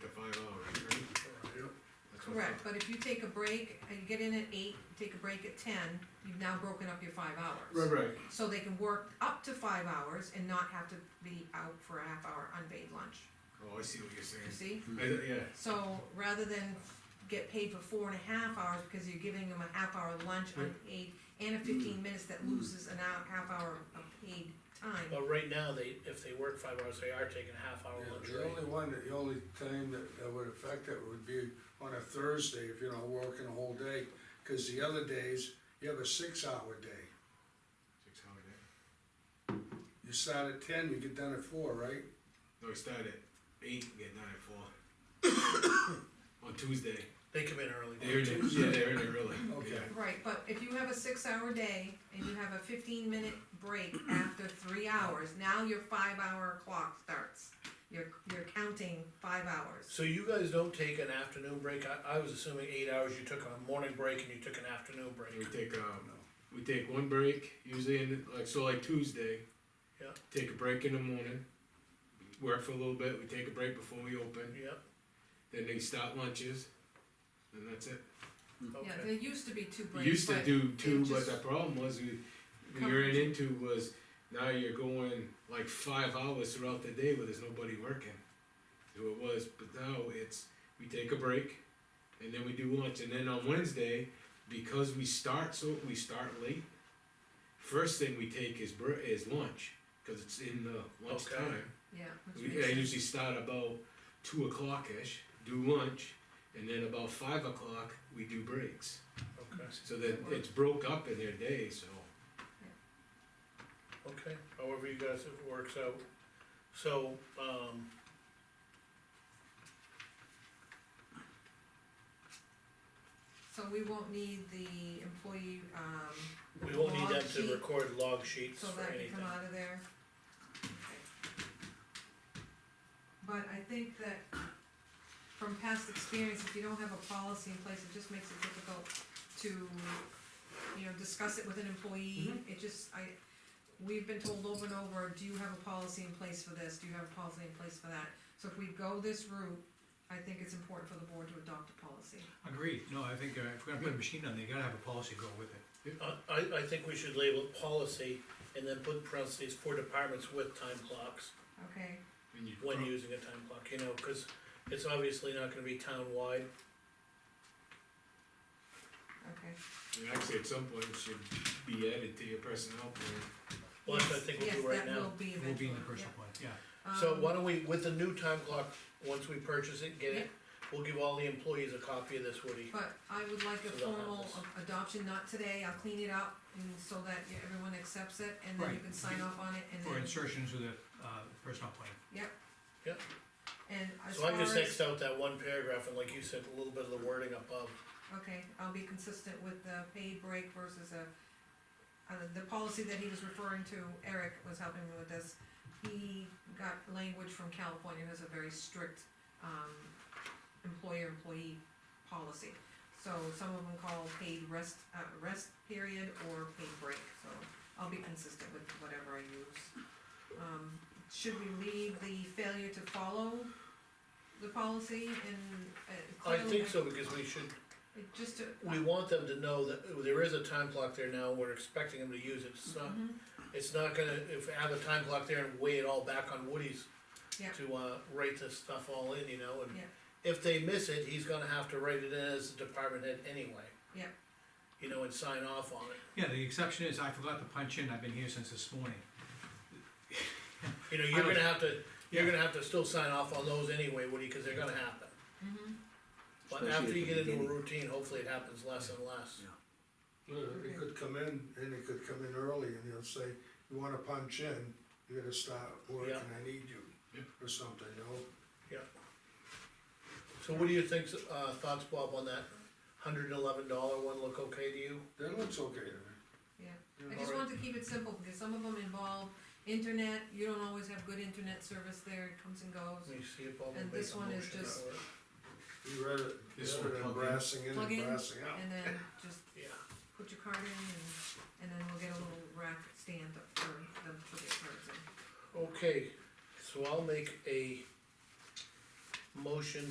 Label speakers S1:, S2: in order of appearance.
S1: to five hours, right?
S2: Yep.
S1: That's what-
S3: Correct, but if you take a break and get in at eight, take a break at ten, you've now broken up your five hours.
S1: Right, right,
S3: So they can work up to five hours and not have to be out for a half hour unpaid lunch,
S1: oh, I see what you're
S3: you
S1: saying,
S3: see?
S1: I- yeah,
S3: So rather than get paid for four and a half hours because you're giving them a half hour lunch unpaid and a fifteen minutes that loses an hour, half hour of paid time.
S4: But right now, they, if they work five hours, they are taking a half hour
S2: Yeah,
S4: lunch
S2: The
S4: break.
S2: only one, the only time that, that would affect it would be on a Thursday, if you're not working a whole day, cause the other days, you have a six-hour day.
S1: six hour day,
S2: You start at ten, you get done at four, right?
S1: no, we start at eight, and get done at four. On Tuesday,
S4: They come in early.
S1: they're in it, yeah, they're in it really,
S2: Okay.
S1: yeah,
S3: Right, but if you have a six hour day and you have a fifteen minute break after three hours, now your five hour clock starts. You're, you're counting five hours.
S4: So you guys don't take an afternoon break? I, I was assuming eight hours, you took a morning break and you took an afternoon
S1: we
S4: break.
S1: take, um, we take one break, usually in, like, so like Tuesday.
S4: Yeah.
S1: Take a break in the morning, work for a little bit, we take a break before we open,
S4: Yep,
S1: then they start lunches, and that's it.
S3: Mm. Yeah,
S4: okay.
S3: there used to be two
S1: We
S3: breaks.
S1: used to
S3: but-
S1: do two,
S3: just-
S1: but the problem was we, we
S3: Come-
S1: ran into was now you're going like five hours throughout the day where there's nobody working. So it was, but now it's, we take a break and then we do lunch and then on Wednesday, because we start so, we start late. First thing we take is br- is lunch, cause it's in the
S4: Okay.
S1: lunchtime.
S3: Yeah. which
S1: We,
S3: makes
S1: I
S3: sense.
S1: usually start about two o'clock-ish, do lunch, and then about five o'clock, we do breaks.
S4: Okay,
S1: So that it's broke up in their day, so.
S4: okay, however you guys, it works out. So, um.
S3: So we won't need the employee, um,
S4: We will need them
S3: Log sheet.
S4: to record log sheets
S3: so
S4: for
S3: that can
S4: anything.
S3: come out of there. Okay. But I think that from past experience, if you don't have a policy in place, it just makes it difficult to, you know, discuss it with an employee.
S4: Mm-hmm.
S3: It just, I, we've been told over and over, do you have a policy in place for this? Do you have a policy in place for that? So if we go this route, I think it's important for the board to adopt a policy.
S5: Agreed, no, I think uh, if we're gonna put a machine on there, you gotta have a policy go with it.
S4: Uh, I, I think we should label it policy and then put parentheses for departments with time clocks,
S3: Okay,
S1: and you-
S4: when using a time clock, you know, cause it's obviously not gonna be town-wide.
S3: okay.
S1: and Actually, at some point, it should be added to your personnel plan.
S4: Well, that's what I think we'll do right
S3: Yes, that
S4: now.
S3: will be
S5: It
S3: eventually.
S5: will be in the personal plan, yeah.
S3: yeah.
S4: So
S3: Um,
S4: why don't we, with the new time clock, once we purchase it, get
S3: Yeah.
S4: it, we'll give all the employees a copy of this, Woody.
S3: But I would like a
S4: So they'll have
S3: formal
S4: this.
S3: a- adoption, not today, I'll clean it up, and so that yeah, everyone accepts it, and then you
S5: Right.
S3: can sign off on it, and
S5: For
S3: then,
S5: insertion into the, uh, personal plan.
S3: and as
S4: So
S3: far
S4: I just
S3: as,
S4: Xed out that one paragraph and like you said, a little bit of the wording above.
S3: okay, I'll be consistent with the paid break versus a, uh, the policy that he was referring to, Eric was helping me with this. He got language from California, has a very strict, um, employer-employee policy. So some of them call paid rest, uh, rest period or paid break, so I'll be consistent with whatever I use. Um, should we leave the failure to follow the policy and, uh,
S4: I
S3: clearly?
S4: think so because we should,
S3: It just to.
S4: we want them to know that there is a time clock there now, we're expecting them to use it, it's not,
S3: Mhm.
S4: it's not gonna, if I have a time clock there and weigh it all back on Woody's
S3: Yeah.
S4: to, uh, write this stuff all in, you know, and
S3: Yeah.
S4: if they miss it, he's gonna have to write it in as the department head anyway.
S3: Yeah.
S4: You know, and sign off on it,
S5: Yeah, the exception is, I forgot to punch in, I've been here since this morning.
S4: you know,
S5: I
S4: you're
S5: don't-
S4: gonna have to, you're
S5: Yeah.
S4: gonna have to still sign off on those anyway, Woody, cause they're gonna happen.
S3: Mhm.
S4: But
S6: Especially
S4: after
S6: at
S4: you
S6: the
S4: get into a
S6: beginning.
S4: routine, hopefully it happens less and less.
S2: It could come in, and it could come in early, and he'll say, you wanna punch in, you gotta start working,
S4: Yeah.
S2: I need you,
S1: Yeah.
S2: or something, you know?
S4: So what do you think, uh, thoughts, Bob, on that hundred and eleven dollar one look okay to you?
S2: That looks okay to me.
S3: I just wanted to keep it simple, because some of them involve internet, you don't always have good internet service there, it comes and goes.
S4: Let me see if Bob will
S3: And
S4: make
S3: this
S4: a
S3: one is
S4: motion
S3: just-
S4: for it.
S2: You read it,
S1: This
S2: you
S1: will
S2: read it,
S1: plug in.
S2: brassing in
S3: Plug
S2: and
S3: in.
S2: brassing out.
S3: And then just
S4: Yeah,
S3: put your card in, and, and then we'll get a little rack stand up for them to put their cards in.
S4: okay, so I'll make a motion